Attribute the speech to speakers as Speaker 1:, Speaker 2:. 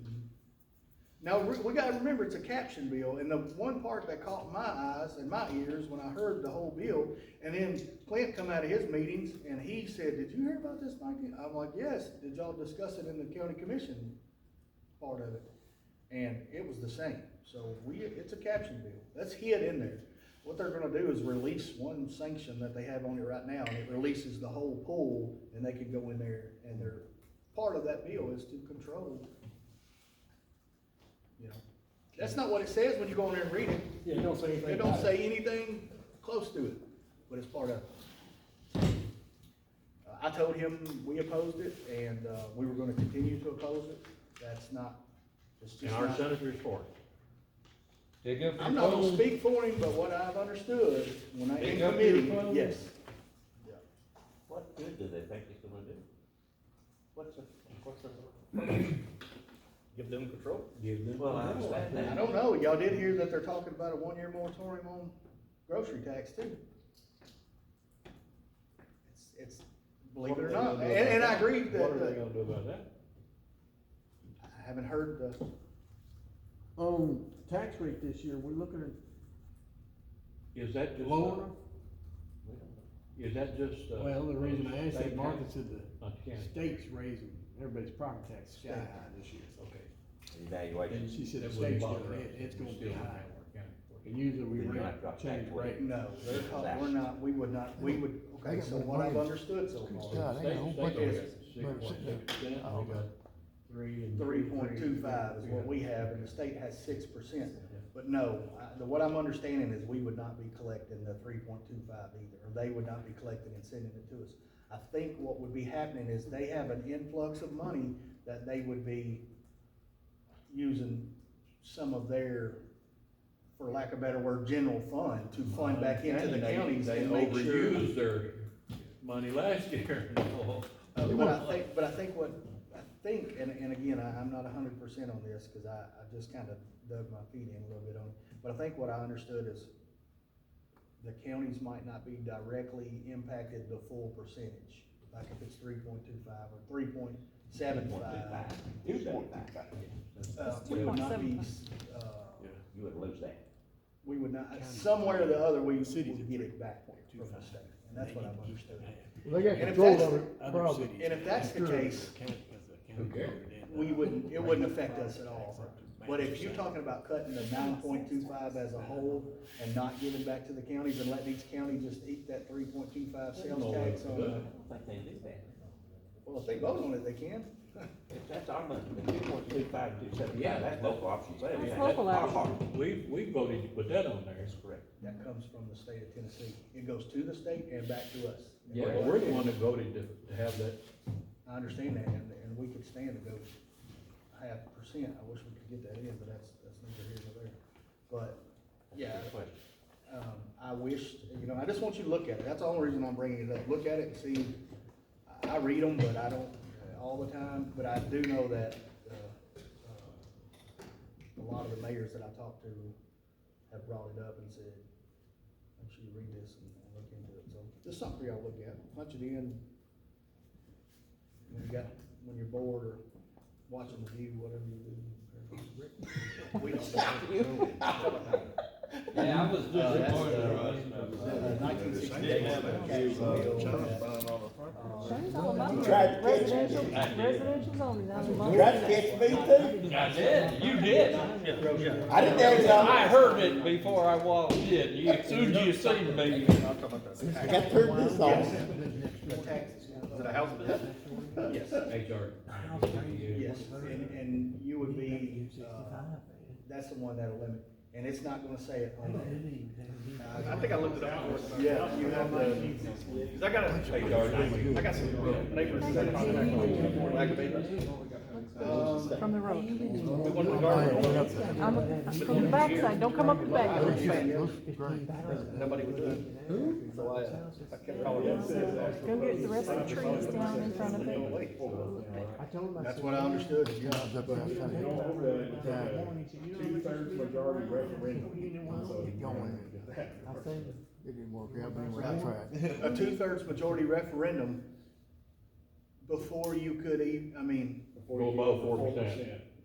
Speaker 1: Now, we, we gotta remember, it's a caption bill, and the one part that caught my eyes and my ears when I heard the whole bill, and then Clint come out of his meetings, and he said, did you hear about this, Mikey? I'm like, yes, did y'all discuss it in the county commission part of it? And it was the same, so we, it's a caption bill, that's hid in there. What they're gonna do is release one sanction that they have on it right now, and it releases the whole pool, and they can go in there, and they're, part of that bill is to control you know, that's not what it says when you go in there and read it.
Speaker 2: Yeah, you don't say anything.
Speaker 1: It don't
Speaker 2: about
Speaker 1: say anything close to it, but it's part of it. Uh, I told him we opposed it and, uh, we were gonna continue to oppose it. That's not, it's
Speaker 3: And
Speaker 1: just
Speaker 3: our
Speaker 1: not.
Speaker 3: senators for it.
Speaker 4: Pick up
Speaker 1: I'm
Speaker 4: your
Speaker 1: not gonna
Speaker 4: phone,
Speaker 1: speak for him, but what I've understood when I, in
Speaker 4: Pick up your
Speaker 1: committee,
Speaker 4: phone.
Speaker 1: yes.
Speaker 5: What good do they think it's gonna do? What's the, what's the?
Speaker 1: Give them control.
Speaker 4: give them.
Speaker 5: Well, I understand
Speaker 1: I
Speaker 5: that.
Speaker 1: don't know. Y'all did hear that they're talking about a one-year moratorium on grocery tax too. It's, it's, believe it or not, and, and I agree that,
Speaker 3: What are they
Speaker 1: uh,
Speaker 3: gonna do about that?
Speaker 1: I haven't heard the,
Speaker 6: On tax rate this year, we're looking at
Speaker 3: Is that just? uh,
Speaker 6: lower.
Speaker 3: Is that just? uh,
Speaker 6: Well, the reason I asked
Speaker 3: state
Speaker 6: that, Martha
Speaker 3: tax?
Speaker 6: said
Speaker 3: Not the
Speaker 6: the
Speaker 3: county,
Speaker 6: state's raising, everybody's property tax sky high this year.
Speaker 3: okay.
Speaker 6: And
Speaker 5: Evaluation.
Speaker 6: she said
Speaker 3: That
Speaker 6: the
Speaker 3: wouldn't
Speaker 6: state's
Speaker 3: bother
Speaker 6: gonna,
Speaker 3: us.
Speaker 6: it- it's
Speaker 3: We're
Speaker 6: gonna
Speaker 3: still
Speaker 6: be
Speaker 3: in
Speaker 6: high.
Speaker 3: Howard County.
Speaker 6: And usually we
Speaker 5: Then you
Speaker 6: rate,
Speaker 5: might drop back
Speaker 6: change
Speaker 5: to
Speaker 6: rate.
Speaker 1: no, they're talking, we're not, we would not, we would, okay, so what I've understood so far,
Speaker 3: The State, state
Speaker 1: bunch of-
Speaker 3: tax is six point six percent, we got three and.
Speaker 1: three point two five is what
Speaker 3: got-
Speaker 1: we have, and the state has six percent. But no, I- the, what I'm understanding is we would not be collecting the three point two five either, or they would not be collecting and sending it to us. I think what would be happening is they have an influx of money that they would be using some of their, for lack of a better word, general fund to fund back into the
Speaker 3: They-
Speaker 1: counties and make
Speaker 3: They
Speaker 1: sure.
Speaker 3: overused their money last year.
Speaker 1: Uh, But I think, but I think what, I think, and, and again, I, I'm not a hundred percent on this, cause I, I just kinda dug my feet in a little bit on it. But I think what I understood is the counties might not be directly impacted the full percentage, like if it's three point two five or three point seven five.
Speaker 5: Two point two five.
Speaker 1: Uh, we would not be, uh,
Speaker 5: You would lose that.
Speaker 1: we would not, somewhere or the other, we
Speaker 2: Cities
Speaker 1: would
Speaker 2: at
Speaker 1: get it back from the
Speaker 2: 3.25.
Speaker 1: state, and that's what I've understood.
Speaker 6: They got
Speaker 1: And if
Speaker 6: control
Speaker 1: that's
Speaker 6: of
Speaker 1: the-
Speaker 6: it,
Speaker 2: other
Speaker 6: probably.
Speaker 2: cities.
Speaker 1: And if that's the case,
Speaker 2: Who
Speaker 1: we wouldn't, it wouldn't affect us at all. But if you're talking about cutting the nine point two five as a whole and not giving back to the counties and letting each county just eat that three point two five sales tax on,
Speaker 5: I
Speaker 1: uh,
Speaker 5: don't think they do that.
Speaker 1: well, if they vote on it, they can.
Speaker 5: If that's our money, the two point two five, two seven, yeah, that's local option sale.
Speaker 7: That's
Speaker 5: Yeah,
Speaker 7: local
Speaker 5: our
Speaker 7: option.
Speaker 5: part.
Speaker 3: We, we voted to put that on there.
Speaker 5: That's correct.
Speaker 1: That comes from the state of Tennessee. It goes to the state and back to us.
Speaker 3: Yeah, we're the one that voted to, to have that,
Speaker 1: I understand that, and, and we could stand to go half percent. I wish we could get that in, but that's, that's neither here nor there. But, yeah,
Speaker 5: Good question.
Speaker 1: um, I wish, you know, I just want you to look at it, that's the only reason I'm bringing it up, look at it and see. I- I read them, but I don't, uh, all the time, but I do know that, uh, uh, a lot of the mayors that I talked to have brought it up and said, make sure you read this and and look into it, so, just something for y'all to look at, punch it in. When you got, when you're bored or watching the view, whatever you do. We don't.
Speaker 4: Yeah, I was
Speaker 1: Uh, that's,
Speaker 4: disappointed.
Speaker 1: Nineteen sixty-eight.
Speaker 7: Shane's all about
Speaker 8: You tried to
Speaker 7: it.
Speaker 8: catch
Speaker 7: residential,
Speaker 4: me. I did.
Speaker 7: residential zoning. I'm about
Speaker 8: You tried to
Speaker 7: it.
Speaker 8: catch me too?
Speaker 4: I did, you
Speaker 8: I
Speaker 4: did.
Speaker 8: didn't tell you
Speaker 4: I
Speaker 8: I
Speaker 4: heard it before I walked in, you, as soon as you seen me.
Speaker 8: I got to turn this off.
Speaker 1: it a house business? Yes,
Speaker 3: HR.
Speaker 1: yes, and, and you would be, uh, that's the one that'll limit, and it's not gonna say it on there.
Speaker 9: I think I looked it up before.
Speaker 1: Yeah, you have the,
Speaker 9: Cause I got a, I got some neighbors that contact lack of papers.
Speaker 1: um,
Speaker 7: From the road.
Speaker 9: We wanted to garden,
Speaker 7: I'm, I'm from the backside. Don't come up the backside.
Speaker 9: nobody would do it. So I, uh, I kept calling them.
Speaker 7: Go get the rest of the trees down in front of it.
Speaker 1: that's what I understood, yeah.
Speaker 2: Two-thirds majority referendum. So,
Speaker 6: It didn't work out, but anyway, I tried.
Speaker 1: a two-thirds majority referendum before you could e I I mean,
Speaker 3: Go above four percent.